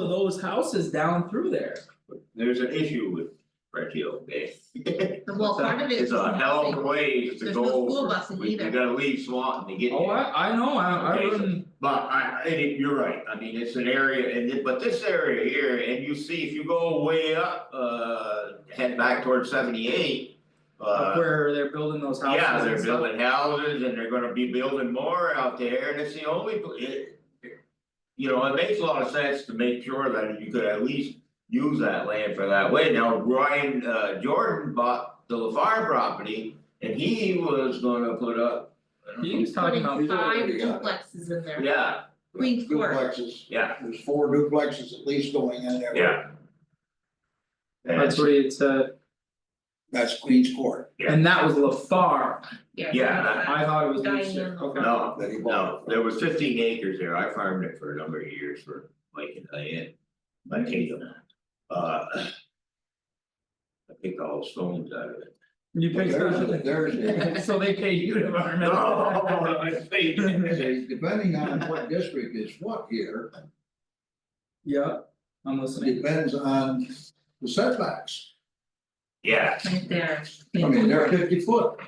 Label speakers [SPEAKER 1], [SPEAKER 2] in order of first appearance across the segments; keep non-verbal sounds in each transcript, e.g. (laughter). [SPEAKER 1] of those houses down through there.
[SPEAKER 2] There's an issue with Red Hill Bay.
[SPEAKER 3] (laughs) Well, part of it
[SPEAKER 2] It's
[SPEAKER 3] is
[SPEAKER 2] a hell of a
[SPEAKER 3] nothing.
[SPEAKER 2] ways to
[SPEAKER 3] There's no
[SPEAKER 2] go,
[SPEAKER 3] school buses
[SPEAKER 2] we you
[SPEAKER 3] either,
[SPEAKER 2] gotta leave Swanton to get
[SPEAKER 1] Oh,
[SPEAKER 2] there,
[SPEAKER 1] I I know, I I
[SPEAKER 2] Okay, so-
[SPEAKER 1] wouldn't,
[SPEAKER 2] but I, I, think you're right, I mean, it's an area, and it, but this area here, and you see, if you go way up, uh, head back towards seventy eight.
[SPEAKER 1] up
[SPEAKER 2] Uh,
[SPEAKER 1] where they're building those houses
[SPEAKER 2] yeah,
[SPEAKER 1] and
[SPEAKER 2] they're
[SPEAKER 1] stuff.
[SPEAKER 2] building houses and they're gonna be building more out there, and it's the only, pl- it. You know, it makes a lot of sense to make sure that you could at least use that land for that way, now Ryan uh Jordan bought the LaFar property. And he was gonna put up. I don't know,
[SPEAKER 1] He was talking
[SPEAKER 3] putting
[SPEAKER 1] about,
[SPEAKER 4] These are-
[SPEAKER 3] five
[SPEAKER 4] yeah.
[SPEAKER 3] duplexes in there,
[SPEAKER 2] Yeah,
[SPEAKER 3] Queens Court.
[SPEAKER 4] Duplexes,
[SPEAKER 2] yeah,
[SPEAKER 4] there's four duplexes at least going in there.
[SPEAKER 2] yeah. And
[SPEAKER 1] that's what he said,
[SPEAKER 4] That's Queens Court
[SPEAKER 2] Yeah.
[SPEAKER 1] and that was LaFar,
[SPEAKER 3] yeah.
[SPEAKER 2] Yeah,
[SPEAKER 1] I thought it was Leash,
[SPEAKER 3] Diane.
[SPEAKER 1] okay.
[SPEAKER 2] no,
[SPEAKER 4] that he
[SPEAKER 2] No,
[SPEAKER 4] bought.
[SPEAKER 2] there was fifteen acres there, I farmed it for a number of years for Mike and Diane, my kingdom. Uh. I picked all the stones out of it.
[SPEAKER 1] You picked
[SPEAKER 4] There's,
[SPEAKER 1] (laughs)
[SPEAKER 4] there's,
[SPEAKER 1] So they pay you to run
[SPEAKER 2] (laughs) No,
[SPEAKER 1] it.
[SPEAKER 2] I see.
[SPEAKER 4] depending on what district is what here,
[SPEAKER 1] Yeah, I'm listening,
[SPEAKER 4] depends on the setbacks.
[SPEAKER 2] Yeah,
[SPEAKER 3] Right there.
[SPEAKER 4] I mean, they're fifty foot.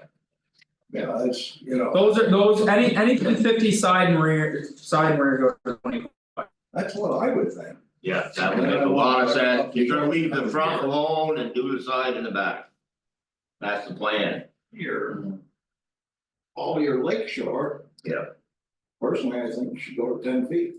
[SPEAKER 4] Yeah, it's, you know,
[SPEAKER 1] those are those, any anything fifty side and rear, side and rear goes for twenty.
[SPEAKER 4] that's what I would think.
[SPEAKER 2] yeah, that would make a lot of sense, you're gonna leave the front alone and do the side and the back. That's the plan.
[SPEAKER 4] Here. All your lake shore.
[SPEAKER 2] Yeah.
[SPEAKER 4] Personally, I think should go to ten feet,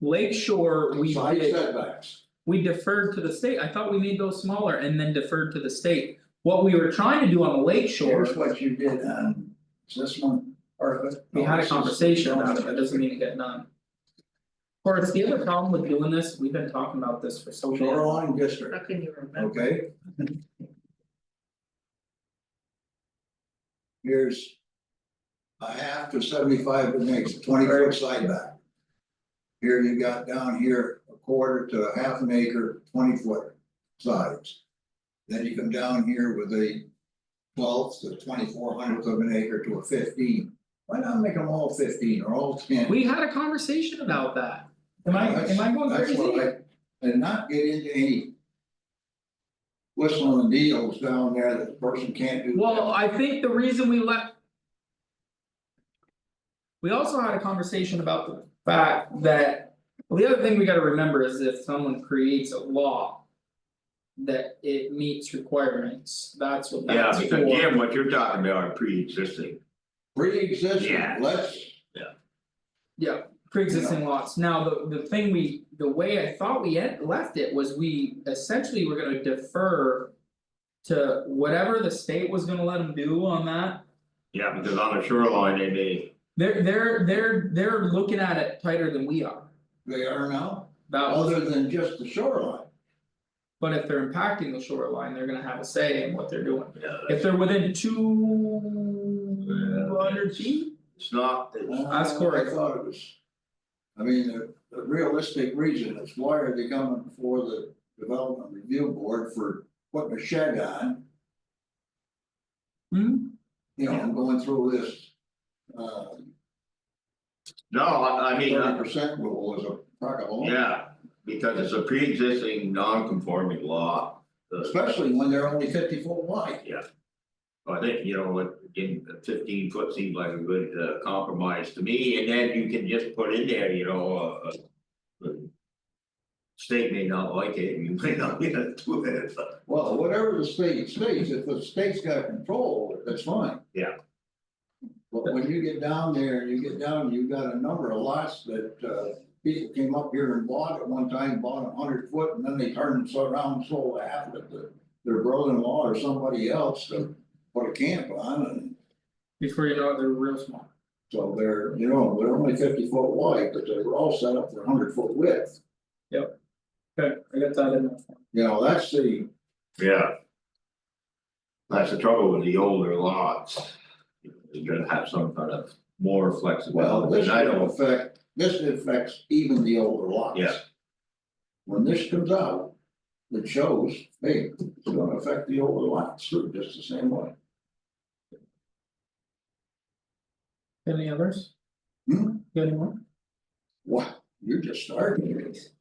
[SPEAKER 1] Lake Shore, we
[SPEAKER 4] side
[SPEAKER 1] did-
[SPEAKER 4] setbacks.
[SPEAKER 1] we deferred to the state, I thought we made those smaller and then deferred to the state. What we were trying to do on the lake shore,
[SPEAKER 4] Here's what you did on, is this one, or?
[SPEAKER 1] we had a conversation about it, that doesn't
[SPEAKER 4] mean.
[SPEAKER 1] mean it got done. Of course, the other problem with doing this, we've been talking about this for so long,
[SPEAKER 4] Shoreline district,
[SPEAKER 3] How can you remember?
[SPEAKER 4] okay? Here's. A half to seventy-five, that makes a twenty foot side back. Here you got down here, a quarter to a half an acre, twenty foot sides. Then you come down here with a twelfth to twenty-four hundredth of an acre to a fifteen. Why not make them all fifteen or all ten?
[SPEAKER 1] we had a conversation about that. Am I, am I going
[SPEAKER 4] That's
[SPEAKER 1] crazy?
[SPEAKER 4] what I, and not get into any. Whistling deals down there that the person can't do.
[SPEAKER 1] Well, I think the reason we left. We also had a conversation about the fact that, well, the other thing we gotta remember is if someone creates a law. That it meets requirements, that's what
[SPEAKER 2] Yeah,
[SPEAKER 1] that's for.
[SPEAKER 2] because Jim, what you're talking about are pre-existing,
[SPEAKER 4] Pre-existing,
[SPEAKER 2] Yeah.
[SPEAKER 4] let's,
[SPEAKER 1] Yeah, pre-existing lots, now the the thing we, the way I thought we had left it was we essentially were gonna defer. To whatever the state was gonna let them do on that,
[SPEAKER 2] yeah, because on the shoreline, they may,
[SPEAKER 1] They're they're they're they're looking at it tighter than we are.
[SPEAKER 4] they are now,
[SPEAKER 1] That was,
[SPEAKER 4] other than just the shoreline.
[SPEAKER 1] but if they're impacting the shoreline, they're gonna have a say in what they're doing.
[SPEAKER 2] yeah,
[SPEAKER 1] If they're within two hundred feet,
[SPEAKER 2] it's not, it's-
[SPEAKER 1] That's
[SPEAKER 4] Uh,
[SPEAKER 1] correct.
[SPEAKER 4] I thought it was. I mean, the, the realistic reason is why are they coming before the development review board for putting a shed on,
[SPEAKER 1] hmm,
[SPEAKER 4] you know, and going through this. Uh,
[SPEAKER 2] no, I I mean, uh,
[SPEAKER 4] thirty percent rule is a, talk of all.
[SPEAKER 2] yeah, because it's a pre-existing non-conforming law. The-
[SPEAKER 4] Especially when they're only fifty foot wide.
[SPEAKER 2] I think, you know, what, in fifteen foot seems like a good uh compromise to me, and then you can just put in there, you know, uh. uh, State may not like it, and you (laughs) may not get to do it, but
[SPEAKER 4] Well, whatever the state states, if the state's got control, that's fine.
[SPEAKER 2] Yeah.
[SPEAKER 4] But when you get down there, you get down, you've got a number of lots that uh people came up here and bought at one time, bought a hundred foot, and then they turned so around, and sold half of it to. Their brother-in-law or somebody else to put a camp on, and
[SPEAKER 1] before you know it, they're real small.
[SPEAKER 4] so they're, you know, they're only fifty foot wide, but they were all set up for hundred foot width.
[SPEAKER 1] Okay, I got that in there.
[SPEAKER 4] You know, that's the,
[SPEAKER 2] yeah. That's the trouble with the older lots. You're gonna have some kind of more
[SPEAKER 4] Well,
[SPEAKER 2] flexibility,
[SPEAKER 4] this
[SPEAKER 2] and I
[SPEAKER 4] will
[SPEAKER 2] don't,
[SPEAKER 4] affect, this affects even the older lots.
[SPEAKER 2] Yeah.
[SPEAKER 4] When this comes out, it shows, hey, it's gonna affect the older lots too, just the same way.
[SPEAKER 1] Any others?
[SPEAKER 4] Hmm?
[SPEAKER 1] You got any more?
[SPEAKER 4] Wow, you're just starting.